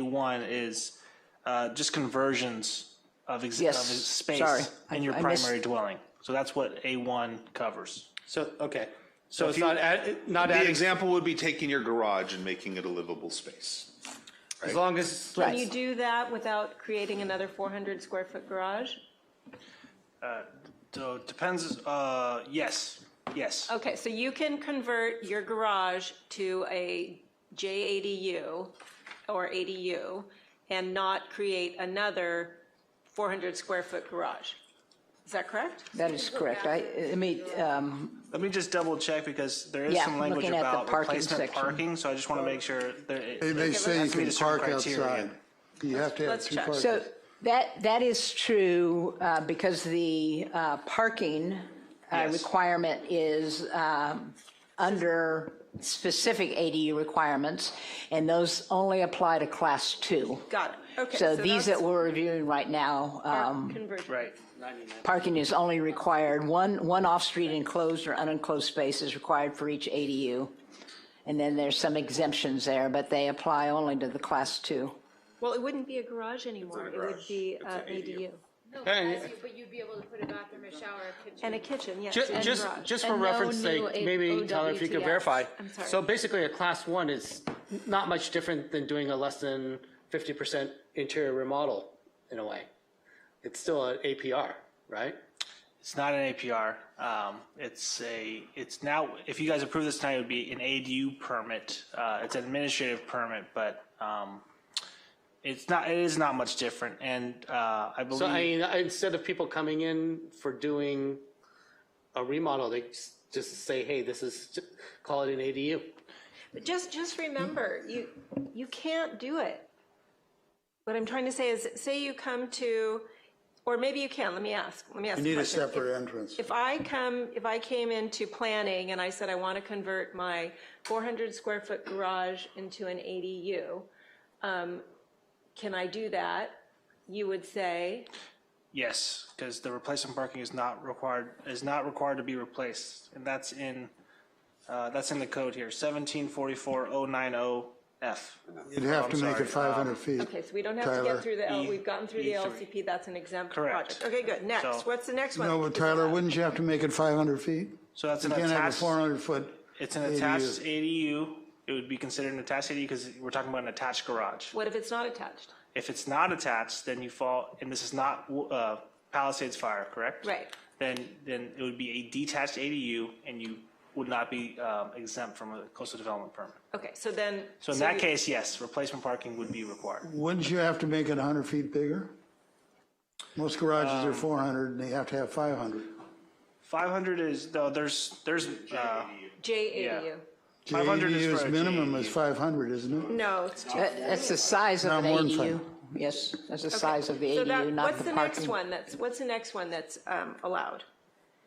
A1 is uh, just conversions of ex- of Yes, sorry. space I- in your I missed- primary dwelling. So that's what A1 covers. So, okay, so it's not, add- not The adding, example would be taking your garage and making it a livable space. as long as, Can you Right. do that without creating another 400 square foot garage? So it depends, uh, yes, yes. Okay, so you can convert your garage to a JADU or ADU and not create another 400 square foot garage. Is that correct? That is correct. I, I mean, um, Let me just double check because there is Yeah, some language looking at the about parking replacement section. parking, so I just want to make sure there. They may say you that's can meet a certain park criteria. outside. You have to have Let's two check. parking. so that, that is true uh, because the uh, parking uh, Yes. requirement is um, under specific ADU requirements, and those only apply to class two. Got it. Okay. So these that that's we're reviewing right now, um, converted. Right. parking is only required, one, one off-street enclosed or unenclosed space is required for each ADU. And then there's some exemptions there, but they apply only to the class two. Well, it wouldn't be a garage anymore. It would be uh, an ADU. No, but as you, but you'd be able to put a bathroom, a shower, a kitchen. And a kitchen, yes, ju- and a just, garage. just for And no reference sake, new maybe Tyler, if you could OWTS. verify. I'm sorry. So basically, a class one is not much different than doing a less than 50% interior remodel, in a way. It's still an APR, right? It's not an APR. Um, it's a, it's now, if you guys approve this tonight, it would be an ADU permit. Uh, it's an administrative permit, but, um, it's not, it is not much different. And, uh, I So I believe, mean, instead of people coming in for doing a remodel, they s- just say, hey, this is, call it an ADU. Just, just remember, you, you can't do it. What I'm trying to say is, say you come to, or maybe you can, let me ask, let me ask. You the need a question. If- separate entrance. If I come, if I came into planning and I said I want to convert my 400 square foot garage into an ADU, um, can I do that? You would say, yes, because the replacement parking is not required, is not required to be replaced. And that's in, uh, that's in the code here, seventeen forty-four oh nine oh F. You'd Oh, have I'm to make sorry. Um, it 500 feet. okay, so we don't have to get Tyler. E, through the, L- we've gotten through the E3. LCP, that's an exempt Correct. project. Okay, good, So- next, what's the next one? No, but Tyler, wouldn't you have to make it 500 feet? So that's You an can't have a attached, 400 foot. it's an attached ADU. It would be considered an attached ADU because we're talking about an attached garage. What if it's not attached? If it's not attached, then you fall, and this is not uh, Palisades Fire, correct? Right. Then, then it would be a detached ADU, and you would not be um, exempt from a coastal development permit. Okay, so then. So in that you- case, yes, replacement parking would be required. Wouldn't you have to make it 100 feet bigger? Most garages Um, are 400 and they have to have 500. 500 is, though, there's, there's, uh, J ADU. 500 is ADU's for a minimum GAU. is 500, isn't it? No. That- That's the size of No, an more than ADU. five. Yes, that's the size of the So that- ADU, not What's the the parking. next one that's, what's the next one that's um, allowed?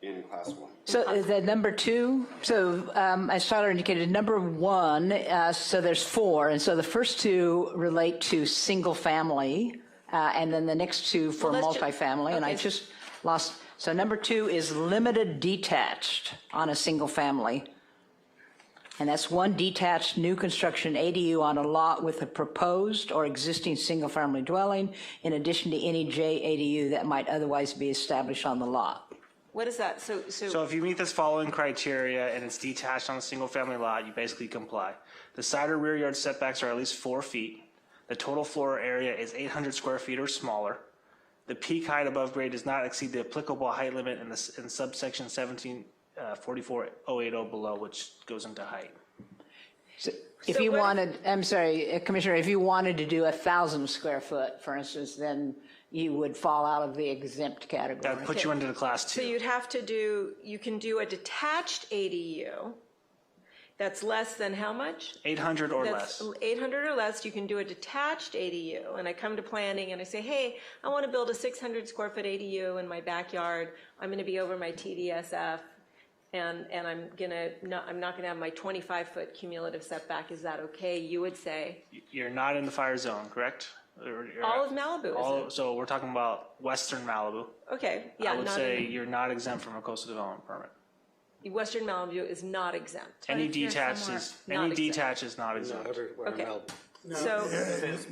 in class one. So uh, the number two, so um, as Tyler indicated, number one, uh, so there's four. And so the first two relate to single family, uh, and then the next two for Well, let's ju- multifamily. And I okay. just lost, so number two is limited detached on a single family. And that's one detached new construction ADU on a lot with a proposed or existing single-family dwelling, in addition to any J ADU that might otherwise be established on the lot. What is that? So, So so, if you meet this following criteria and it's detached on a single-family lot, you basically comply. The side or rear yard setbacks are at least four feet. The total floor area is 800 square feet or smaller. The peak height above grade does not exceed the applicable height limit in this, in subsection uh, 1744080 below, which goes into height. If So you what if- wanted, I'm sorry, uh, Commissioner, if you wanted to do a 1,000 square foot, for instance, then you would fall out of the exempt That category. would put you into the class so two. you'd have to do, you can do a detached ADU that's less than how much? 800 or That's less. 800 or less, you can do a detached ADU. And I come to planning and I say, hey, I want to build a 600 square foot ADU in my backyard. I'm going to be over my TDSF. And, and I'm going to, not, I'm not going to have my 25 foot cumulative setback. Is that okay? You would say, You're not in the fire zone, correct? Or- or- all of Malibu all- is So we're talking about western Malibu. Okay, yeah. I would not say in- you're not exempt from a coastal development permit. Western Malibu is not exempt. Any if you're detached somewhere is, not any exempt. detached is not exempt. Okay. So.